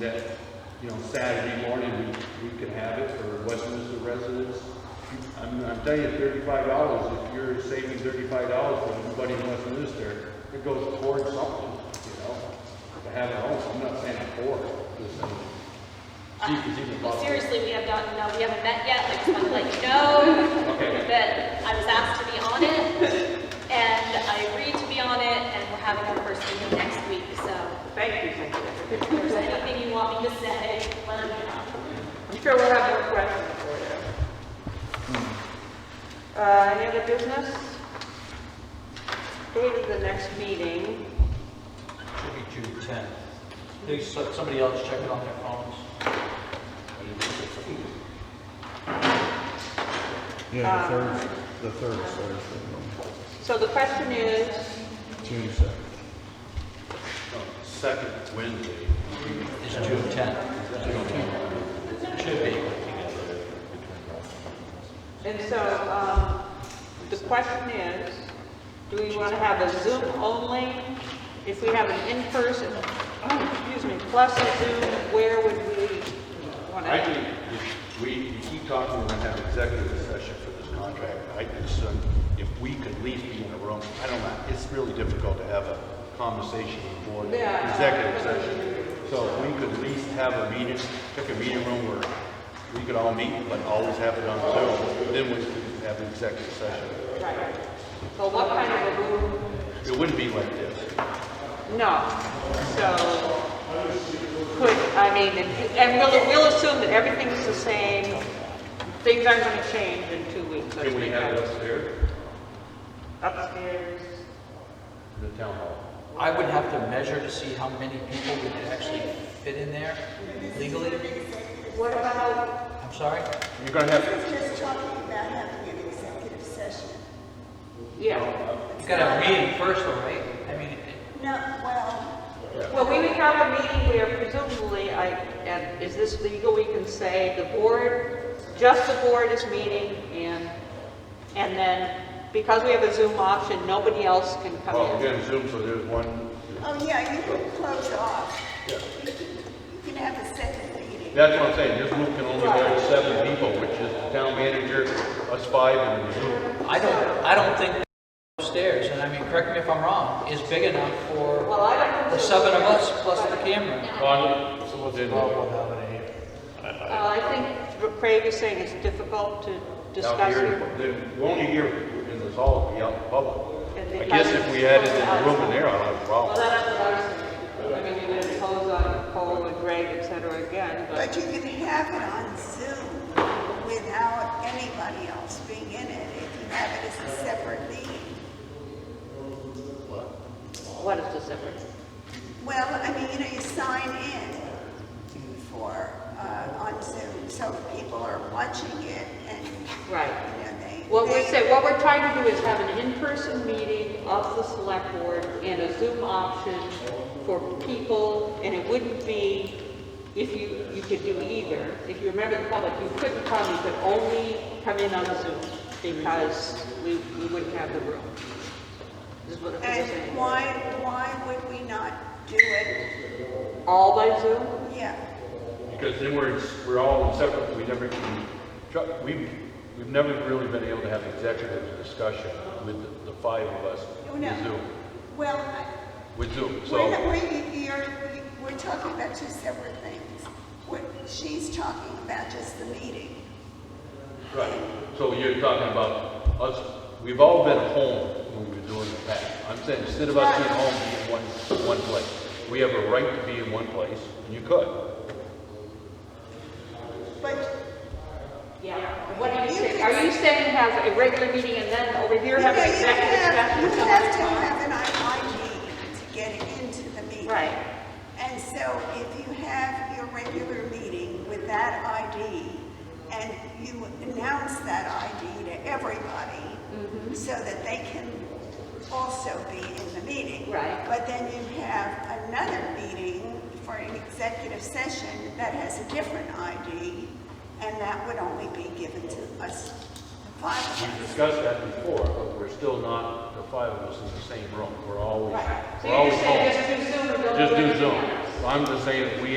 that, you know, Saturday morning, we, we could have it for Westminster residents. I'm, I'm telling you, thirty-five dollars, if you're saving thirty-five dollars for everybody in Westminster, it goes towards something, you know? To have it home, I'm not saying for, just saying. See if it's even Well, possible. seriously, we have not, no, we haven't met yet, I just wanted to let you know Okay. that I was asked to be on it, and I agreed to be on it, and we're having our first meeting next week, so Thank you, thank you. if there's anything you want me to say, let me know. I'm sure we'll have more questions for you. Uh, any other business? Date of the next meeting, Should be June 10th. They- so- Somebody else check it on their phones. Yeah, the Um, third, the third is Thursday, so the question is, June second. Second Wednesday. It's June 10th. Should be. And so, um, the question is, do we want to have a Zoom only? If we have an in-person, oh, excuse me, plus a Zoom, where would we want I to? think if we, we keep talking, we're gonna have executive session for this contract. I assume if we could at least be in a room, I don't know, it's really difficult to have a conversation before the Yeah. executive session. So if we could at least have a meeting, pick a meeting room where we could all meet, but always have it on Zoom, then we could have an executive session. Right. So what kind of a room? It wouldn't be like this. No. So, could, I mean, and- and we'll, we'll assume that everything's the same. Things aren't going to change in two weeks. Can we have it upstairs, Upstairs. in the town hall? I would have to measure to see how many people we could actually fit in there legally. What about, I'm sorry? You're gonna have, We're just talking about having an executive session. yeah. You gotta have a meeting first, though, right? I mean, it- No, well, Well, we would have a meeting where presumably, I, and is this legal, we can say the board, just the board is meeting, and, and then, because we have a Zoom option, nobody else can come well, in. we're gonna Zoom, so there's one, oh yeah, you can close off. You can- you can have a second meeting. That's what I'm saying, this group can only hold seven people, which is the town manager, us five, and the group. I don't, I don't think upstairs, and I mean, correct me if I'm wrong, is big enough for Well, I don't. the seven of us plus the camera. Bonnie, someone's in there. Uh, I think what Craig is saying it's difficult to Out discuss. here, it. they won't you hear in this hall, be out in public. I guess if we had it in the room in there, I'd have a Well, problem. that's what I was thinking. I mean, you would impose on Paul and Greg, et cetera, again, but. But you can have it on Zoom without anybody else being in it, if you have it as a separate meeting. What is the separate? Well, I mean, you know, you sign in for, uh, on Zoom, so people are watching it and, you Right. know, they. What we they- say, what we're trying to do is have an in-person meeting of the select board and a Zoom option for people, and it wouldn't be, if you, you could do either. If you remember the public, you couldn't come, you could only come in on Zoom because we, we wouldn't have the room. Is what I'm And saying. why, why would we not do it? All by Zoom? Yeah, Because then we're, we're all in separate, we never can, Chuck, we've, we've never really been able to have executive discussion with the- the five of us Oh, no, with no. Zoom, Well, I- with Zoom, we're, not- so. we're, you're, we're talking about two separate things. What, she's talking about just the meeting. Right, so you're talking about us, we've all been home when we were doing the pack. I'm saying, instead of us being home, be in one, one place. We have a right to be in one place, and you could. But Yeah. What are you saying? Are you saying have a regular meeting and then over here you have know, an you executive have, session? you some have other to time? have an IID to get into the meeting. Right. And so if you have your regular meeting with that ID and you announce that ID to everybody Mm-hmm. so that they can also be in the meeting. Right. But then you have another meeting for an executive session that has a different ID and that would only be given to us, the five of us. We discussed that before, but we're still not, the five of us in the same room. We're always, Right. So we're you're always just home. saying just do Zoom and don't do Just do anything Zoom. else? So I'm just saying, we